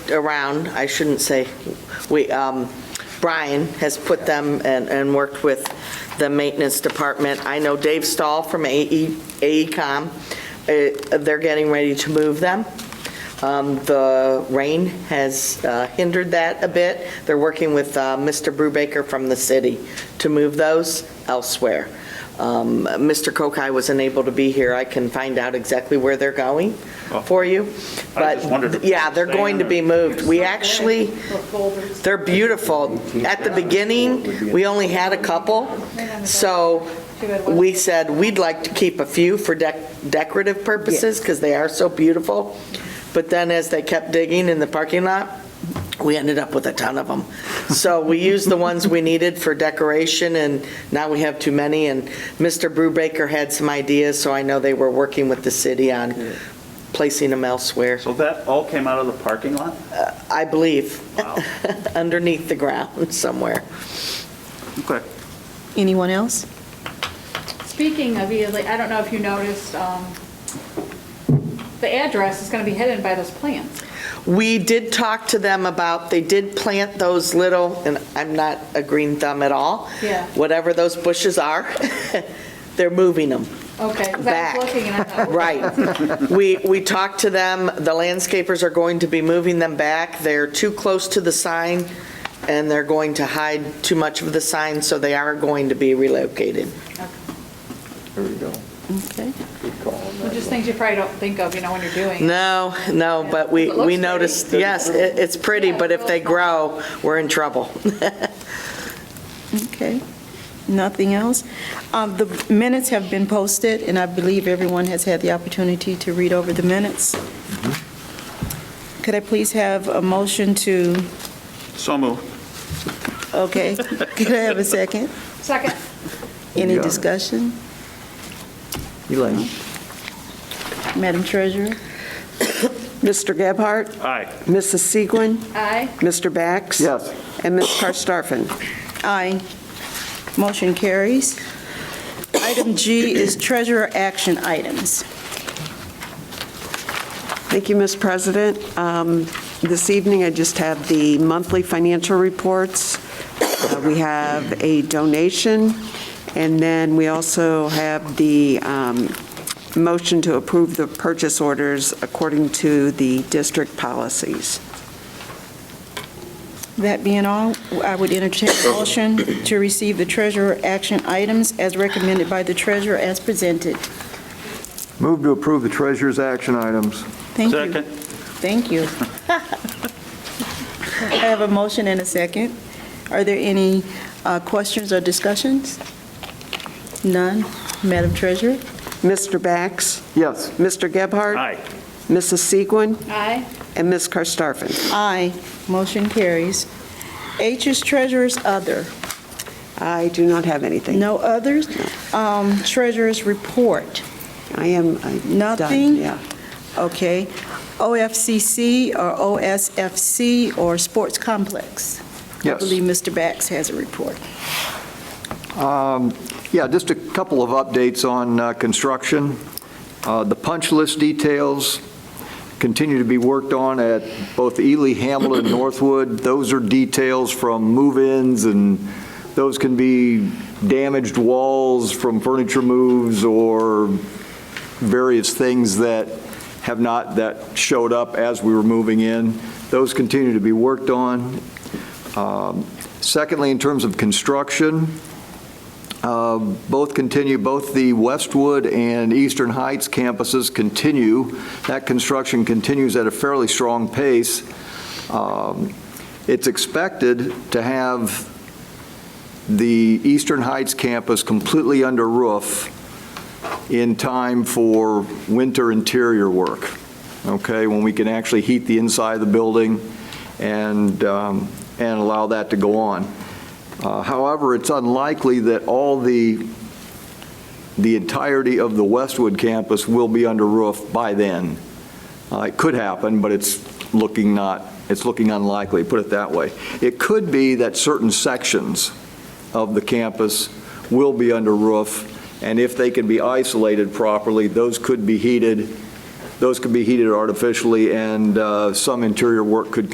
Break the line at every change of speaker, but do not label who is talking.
around, I shouldn't say, we, um, Brian has put them and, and worked with the maintenance department. I know Dave Stahl from E, AE, AECom, uh, they're getting ready to move them. Um, The rain has uh, hindered that a bit. They're working with uh, Mr. Brubaker from the city to move those elsewhere. Um, Mr. Kokai was unable to be here. I can find out exactly where they're going for you.
I just wondered if
But, yeah, they're
they're
going to be
staying
moved. We actually, they're beautiful. At the beginning, we only had a couple, so we said we'd like to keep a few for dec- decorative purposes because they are so beautiful. But then as they kept digging in the parking lot, we ended up with a ton of them. So we used the ones we needed for decoration, and now we have too many. And Mr. Brubaker had some ideas, so I know they were working with the city on placing them elsewhere,
So that all came out of the parking lot?
I believe,
Wow.
underneath the ground somewhere.
Okay.
Anyone else?
Speaking of Ely, I don't know if you noticed, um, the address is going to be hidden by those plants.
We did talk to them about, they did plant those little, and I'm not a green thumb at all.
Yeah.
Whatever those bushes are, they're moving them.
Okay. 'cause I
Back.
was looking and I thought,
Right. We, we talked to them, the landscapers are going to be moving them back. They're too close to the sign, and they're going to hide too much of the sign, so they are going to be relocated.
There we go.
Okay.
Good call on
well,
that.
just things you probably don't think of, you know, when you're doing. it.
No, no, but we,
It looks
we noticed,
pretty.
yes, it- it's pretty,
Yeah,
but if they
it's real small.
grow, we're in trouble.
Okay. Nothing else? Um, The minutes have been posted, and I believe everyone has had the opportunity to read over the minutes. Could I please have a motion to,
So moved.
okay, could I have a second?
Second,
Any
Yeah.
discussion?
Elaine?
Madam Treasurer?
Mr. Gebhardt?
Aye.
Mrs. Segwin?
aye.
Mr. Bax?
Yes.
And Ms. Karstafen?
Aye. Motion carries. Item G is treasurer action items.
Thank you, Ms. President. Um, This evening, I just have the monthly financial reports. Uh, We have a donation, and then we also have the um, motion to approve the purchase orders according to the district policies.
That being all, I would entertain a motion to receive the treasurer action items as recommended by the treasurer as presented.
Move to approve the treasurer's action items.
Thank you.
Second.
Thank you. I have a motion and a second. Are there any uh, questions or discussions? None. Madam Treasurer?
Mr. Bax?
Yes.
Mr. Gebhardt?
Aye.
Mrs. Segwin?
Aye.
And Ms. Karstafen?
Aye. Motion carries. H is treasurer's other.
I do not have anything.
No others? Um, Treasurer's report.
I am I'm done.
Nothing?
Yeah.
Okay. OFCC or OSFC or Sports Complex? I
Yes.
believe Mr. Bax has a report.
Um, Yeah, just a couple of updates on uh, construction. Uh, The punch list details continue to be worked on at both Ely, Hamilton, and Northwood. Those are details from move-ins, and those can be damaged walls from furniture moves or various things that have not, that showed up as we were moving in. Those continue to be worked on. Um, Secondly, in terms of construction, uh, both continue, both the Westwood and Eastern Heights campuses continue. That construction continues at a fairly strong pace. Um, It's expected to have the Eastern Heights campus completely under roof in time for winter interior work, okay? When we can actually heat the inside of the building and, um, and allow that to go on. Uh, However, it's unlikely that all the, the entirety of the Westwood campus will be under roof by then. Uh, It could happen, but it's looking not, it's looking unlikely, put it that way. It could be that certain sections of the campus will be under roof, and if they can be isolated properly, those could be heated, those could be heated artificially, and uh, some interior work could